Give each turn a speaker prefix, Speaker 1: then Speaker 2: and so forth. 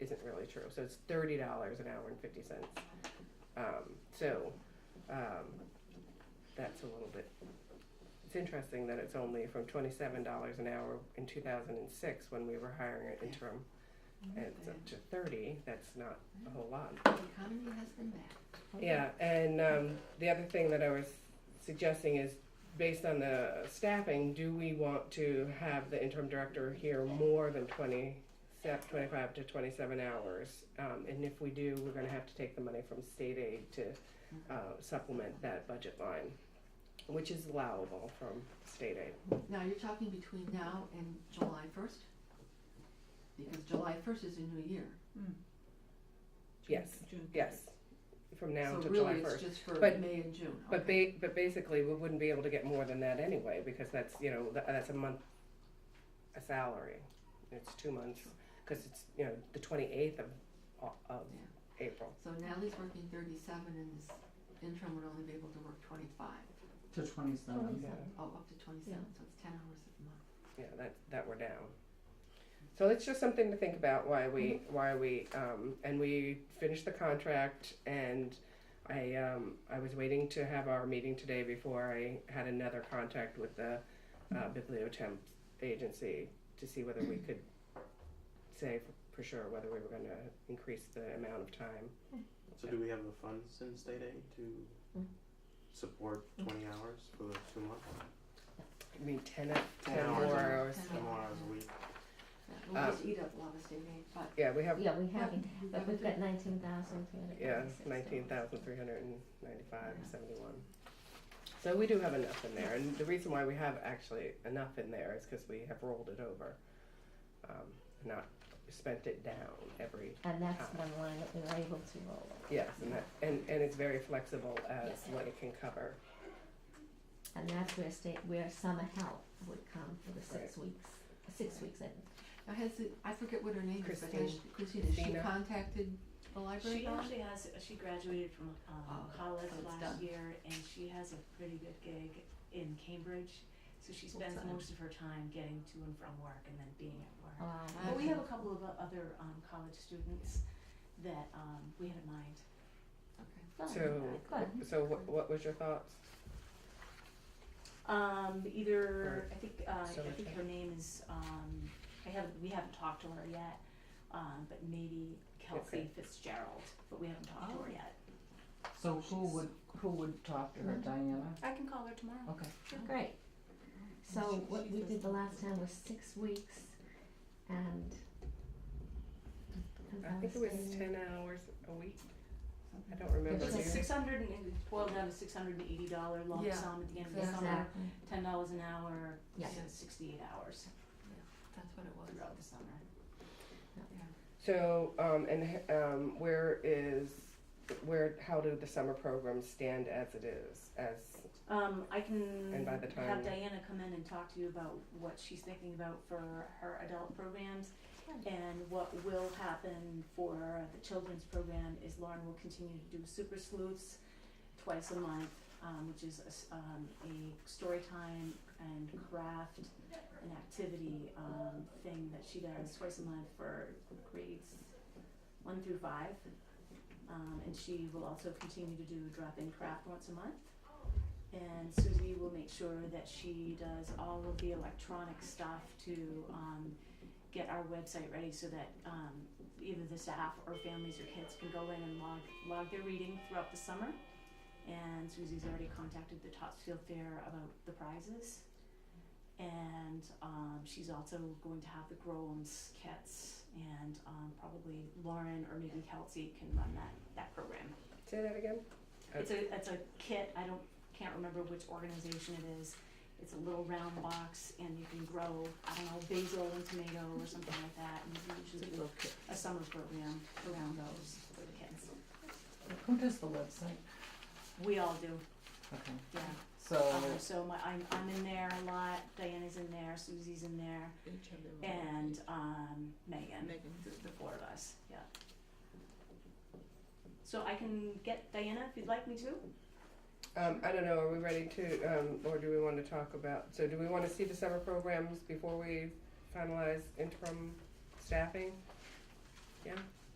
Speaker 1: really true. So it's thirty dollars an hour and fifty cents. Um, so um, that's a little bit. It's interesting that it's only from twenty-seven dollars an hour in two thousand and six when we were hiring an interim, and it's up to thirty. That's not a whole lot.
Speaker 2: The economy has been bad.
Speaker 1: Yeah, and um, the other thing that I was suggesting is, based on the staffing, do we want to have the interim director here more than twenty, se- twenty-five to twenty-seven hours? Um, and if we do, we're gonna have to take the money from state aid to uh, supplement that budget line, which is allowable from state aid.
Speaker 2: Now, you're talking between now and July first? Because July first is a new year.
Speaker 1: Yes, yes, from now to
Speaker 2: So
Speaker 1: July
Speaker 2: really, it's
Speaker 1: first.
Speaker 2: just for
Speaker 1: But-
Speaker 2: May and June,
Speaker 1: But
Speaker 2: okay.
Speaker 1: ba- but basically, we wouldn't be able to get more than that anyway, because that's, you know, tha- that's a month, a salary. It's two months, because it's, you know, the twenty-eighth of, Au- of
Speaker 2: Yeah.
Speaker 1: April.
Speaker 2: So Natalie's working thirty-seven and this interim would only be able to work twenty-five.
Speaker 3: To twenty-seven.
Speaker 1: Yeah,
Speaker 2: Oh, up to twenty-seven, so it's ten hours a month.
Speaker 1: yeah, that, that we're down. So it's just something to think about why we, why we, um, and we finished the contract and I, um, I was waiting to have our meeting today before I had another contact with the, uh, bibliotemp agency to see whether we could say for, for sure whether we were gonna increase the amount of time.
Speaker 4: So do we have the funds in state aid to support twenty hours for the two months?
Speaker 1: I mean, ten, a- ten
Speaker 4: Ten hours.
Speaker 1: more hours.
Speaker 2: Ten
Speaker 4: Ten more hours a week?
Speaker 2: Yeah, we'll just eat up a lot of state aid, but.
Speaker 1: Yeah, we have,
Speaker 5: Yeah, we have, it,
Speaker 2: you
Speaker 5: but
Speaker 2: gotta
Speaker 5: we've
Speaker 2: do-
Speaker 5: got nineteen thousand three hundred.
Speaker 1: Yeah, nineteen thousand three hundred and ninety-five seventy-one. So we do have enough in there, and the reason why we have actually enough in there is because we have rolled it over, um, not spent it down every.
Speaker 5: And that's
Speaker 1: Ah.
Speaker 5: one line that we were able to roll over.
Speaker 1: Yes, and that, and and it's very flexible as what it can cover.
Speaker 5: And that's where state, where summer help would come for the six weeks, six weeks, I think.
Speaker 2: Now, has it, I forget what her name is, but has,
Speaker 1: Christine.
Speaker 2: Christine, has she
Speaker 1: Christina.
Speaker 2: contacted the library
Speaker 6: She
Speaker 2: about it?
Speaker 6: actually has, she graduated from um,
Speaker 2: Oh,
Speaker 6: college
Speaker 2: so it's done.
Speaker 6: last year and she has a pretty good gig in Cambridge. So she spends
Speaker 2: Full-time.
Speaker 6: most of her time getting to and from work and then being at work.
Speaker 5: Um,
Speaker 6: But we have a couple of o- other um, college students that um, we had in mind.
Speaker 2: Okay.
Speaker 5: fun,
Speaker 1: So-
Speaker 5: Good.
Speaker 1: So what what was your thoughts?
Speaker 6: Um, either, I think, uh,
Speaker 1: So
Speaker 6: I think
Speaker 1: much.
Speaker 6: her name is, um, I haven't, we haven't talked to her yet, um, but maybe
Speaker 1: Okay.
Speaker 6: Kelsey Fitzgerald, but we haven't talked to her
Speaker 2: Oh.
Speaker 6: yet.
Speaker 3: So who would, who would talk to her, Diana?
Speaker 6: I can call her tomorrow.
Speaker 3: Okay.
Speaker 5: Great. So what we did the last time was six weeks and.
Speaker 1: I think it was ten hours a week. I don't remember.
Speaker 6: It's
Speaker 1: do
Speaker 6: a
Speaker 1: you?
Speaker 6: six hundred and, it boiled down to six hundred and eighty dollar lump
Speaker 2: Yeah,
Speaker 6: sum at the end of the summer,
Speaker 5: Exactly,
Speaker 6: ten dollars an hour,
Speaker 5: Yeah.
Speaker 6: so sixty-eight hours
Speaker 2: That's what it was.
Speaker 6: throughout the summer.
Speaker 1: So, um, and um, where is, where, how do the summer programs stand as it is, as,
Speaker 6: Um, I can
Speaker 1: And by the time-
Speaker 6: have Diana come in and talk to you about what she's thinking about for her adult programs. And what will happen for the children's program is Lauren will continue to do super sleuths twice a month, um, which is a, s- um, a story time and craft and activity um, thing that she does twice a month for grades one through five. Um, and she will also continue to do drop-in craft once a month. And Susie will make sure that she does all of the electronic stuff to um, get our website ready so that um, either the staff or families or kids can go in and log, log their reading throughout the summer. And Susie's already contacted the Topsfield Fair about the prizes. And um, she's also going to have the Groams kits, and um, probably Lauren or maybe Kelsey can run that, that program.
Speaker 1: say that again?
Speaker 6: It's a it's a kit. I don't can't remember which organization it is. It's a little round box, and you can grow I don't know basil and tomato or something like that. And you can usually do a summer program around those for the kids.
Speaker 3: Who does the website?
Speaker 6: We all do,
Speaker 3: Okay, Uh-huh.
Speaker 6: yeah.
Speaker 3: so,
Speaker 6: Um, so my I'm I'm in there a lot. Diana's in there. Susie's in there, and um, Megan. the four of us. Yeah. So I can get Diana if you'd like me to.
Speaker 1: Um, I don't know, are we ready to, um, or do we wanna talk about, so do we wanna see the summer programs before we finalize interim staffing? Yeah,